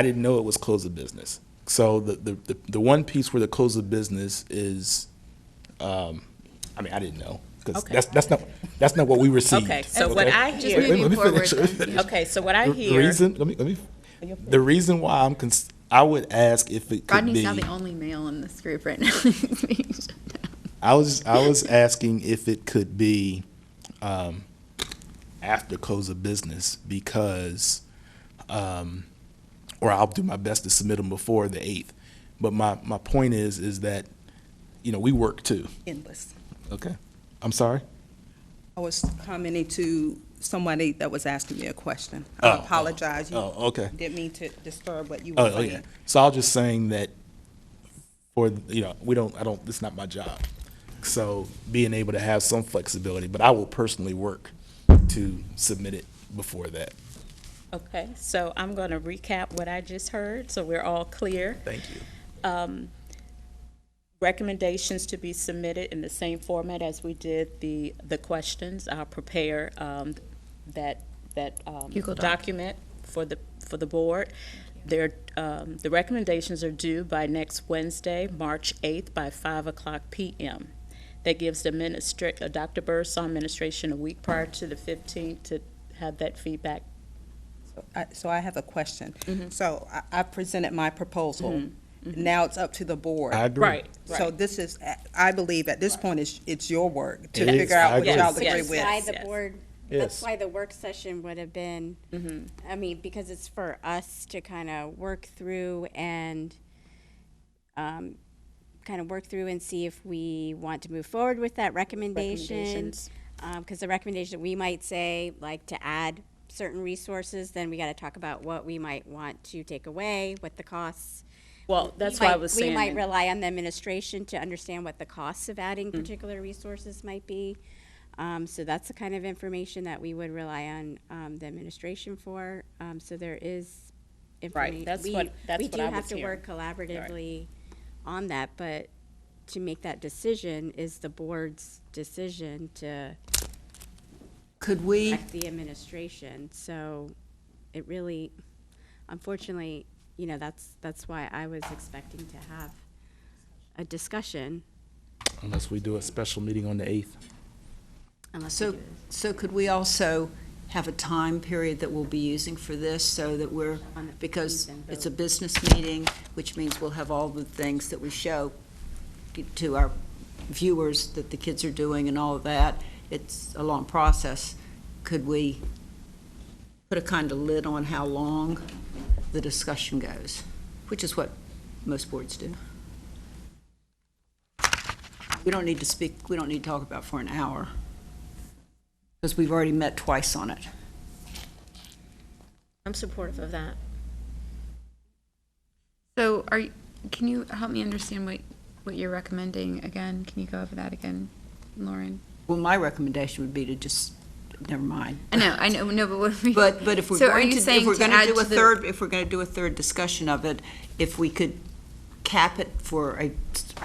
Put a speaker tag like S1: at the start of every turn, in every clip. S1: I didn't know it was close of business. So the, the, the, the one piece where the close of business is, um, I mean, I didn't know. Because
S2: Okay.
S1: that's, that's not, that's not what we received.
S2: Okay, so what I
S1: Wait,
S2: hear-
S1: wait, let me
S3: Moving
S1: finish.
S3: forward, then, yeah.
S2: Okay, so what I
S1: The
S2: hear,
S1: Reason, let me, let me, the reason why I'm, cons- I would ask if it could
S3: Rodney's
S1: be,
S3: now the only male in this group right now. He's being shut down.
S1: I was, I was asking if it could be, um, after close of business because, um, or I'll do my best to submit them before the eighth. But my, my point is, is that, you know, we work too.
S4: endless.
S1: Okay. I'm sorry?
S4: I was commenting to somebody that was asking me a question.
S1: Oh,
S4: I
S1: oh,
S4: apologize. You
S1: oh, okay.
S4: Didn't mean to disturb what you
S1: Oh,
S4: were
S1: oh, yeah.
S4: saying.
S1: So I was just saying that for, you know, we don't, I don't, it's not my job. So being able to have some flexibility, but I will personally work to submit it before that.
S2: okay, so I'm going to recap what I just heard, so we're all clear.
S1: Thank you.
S2: Um, Recommendations to be submitted in the same format as we did the, the questions. I'll prepare um, that, that um,
S3: Google Doc.
S2: document for the, for the board. Their, um, the recommendations are due by next Wednesday, March 8th, by 5 o'clock PM. That gives the minister, uh, Dr. Birdsall administration a week prior to the 15th to have that feedback.
S4: I- So I have a question.
S2: Mm-hmm.
S4: So I- I presented my proposal. Now it's up to the board.
S1: I agree.
S4: So this is, I believe at this point, it's, it's your work to
S1: It is.
S4: figure out
S1: I
S4: what
S1: agree.
S4: y'all
S2: Yes,
S4: agree
S2: yes.
S4: with.
S5: That's why
S2: yes.
S5: the board,
S1: Yes.
S5: that's why the work session would have been,
S2: Mm-hmm.
S5: I mean, because it's for us to kind of work through and kind of work through and see if we want to move forward with that recommendation.
S2: Recommendations.
S5: Because the recommendation, we might say, like, to add certain resources, then we got to talk about what we might want to take away, what the costs.
S2: Well, that's
S5: We
S2: why I
S5: might-
S2: was
S5: We might
S2: saying, Mm.
S5: rely on the administration to understand what the costs of adding particular resources might be. Um, so that's the kind of information that we would rely on, um, the administration for. Um, so there is information.
S2: that's what- that's
S5: We
S2: what
S5: do
S2: I
S5: have
S2: was
S5: to
S2: hearing.
S5: work collaboratively on that, but to make that decision is the board's decision to
S6: Could we,
S5: affect the administration. So it really, unfortunately, you know, that's, that's why I was expecting to have a discussion
S1: Unless we do a special meeting on the eighth.
S5: unless we
S6: so,
S5: do this
S6: so could we also have a time period that we'll be using for this so that we're,
S5: on the
S6: because
S5: 15th and
S6: it's a
S5: vote.
S6: business meeting, which means we'll have all the things that we show to our viewers that the kids are doing and all of that. It's a long process. Could we put a kind of lid on how long the discussion goes, which is what most boards do? We don't need to speak, we don't need to talk about for an hour, because we've already met twice on it.
S7: I'm supportive of that.
S3: So are, you- can you help me understand what, what you're recommending again? Can you go over that again, Lauren?
S6: Well, my recommendation would be to just, never mind.
S3: I know, I know, no, but what are we?
S6: But, but if we're
S3: So are
S6: going
S3: you
S6: to,
S3: saying
S6: if we're
S3: to
S6: going
S3: add
S6: to do a
S3: to the-
S6: third, if we're going to do a third discussion of it, if we could cap it for a,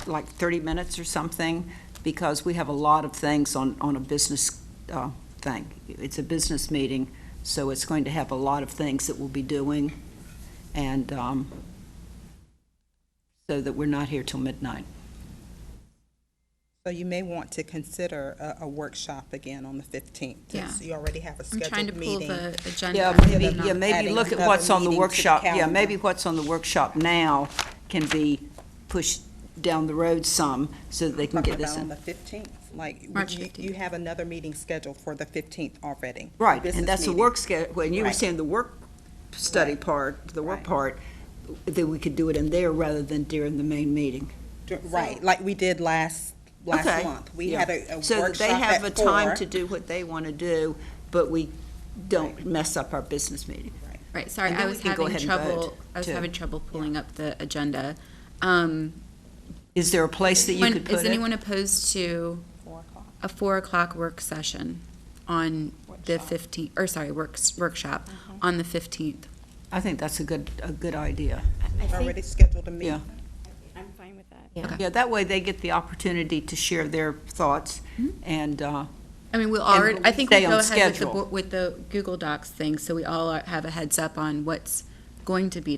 S6: like 30 minutes or something, because we have a lot of things on, on a business uh, thing. It's a business meeting, so it's going to have a lot of things that we'll be doing, and um, so that we're not here till midnight.
S4: So you may want to consider a, a workshop again on the fifteenth.
S3: Yeah.
S4: You already have a
S3: I'm trying to
S4: scheduled
S3: pull
S4: meeting.
S3: the agenda.
S6: Yeah,
S3: up, but
S6: maybe,
S3: not-
S6: yeah, maybe
S4: adding
S6: look at
S4: another
S6: what's on the
S4: meeting to the
S6: workshop, yeah,
S4: calendar.
S6: maybe what's on the workshop now can be pushed down the road some, so that they can
S4: Talking
S6: get this
S4: about On
S6: in.
S4: the fifteenth, like, you-
S3: March
S4: you,
S3: 15th.
S4: you have another meeting scheduled for the fifteenth already.
S6: Right,
S4: business
S6: and that's the
S4: meeting.
S6: work schedule, when you were
S4: Right.
S6: saying the work study part, the work
S4: Right.
S6: part, that we could do it in there rather than during the main meeting.
S4: Dr- Right, like we did last,
S6: Okay.
S4: last month. We
S6: Yeah.
S4: had a a
S6: So that
S4: workshop
S6: they have a
S4: at four.
S6: time to do what they want to do, but we don't mess up our business meeting.
S3: Right, sorry,
S6: And
S3: I
S6: then we
S3: was
S6: can go
S3: having
S6: ahead and vote,
S3: trouble, I was
S6: too.
S3: having trouble pulling up the agenda. Um,
S6: Is there a place that you
S3: When-
S6: could
S3: Is
S6: put it?
S3: anyone opposed to a four o'clock work session on the fifteenth, or sorry, works, workshop
S6: Uh-huh.
S3: on the fifteenth?
S6: I think that's a good, a good idea,
S5: I
S4: Already
S5: think,
S4: scheduled a meeting.
S6: yeah.
S5: I'm fine with that.
S7: Yeah.
S6: Yeah, that way they get the opportunity to share their thoughts and, uh,
S3: I mean, we'll
S6: And
S3: already, I think
S6: stay
S3: we'll go
S6: on
S3: ahead with the,
S6: schedule.
S3: bo- with the Google Docs thing, so we all are- have a heads up on what's going to be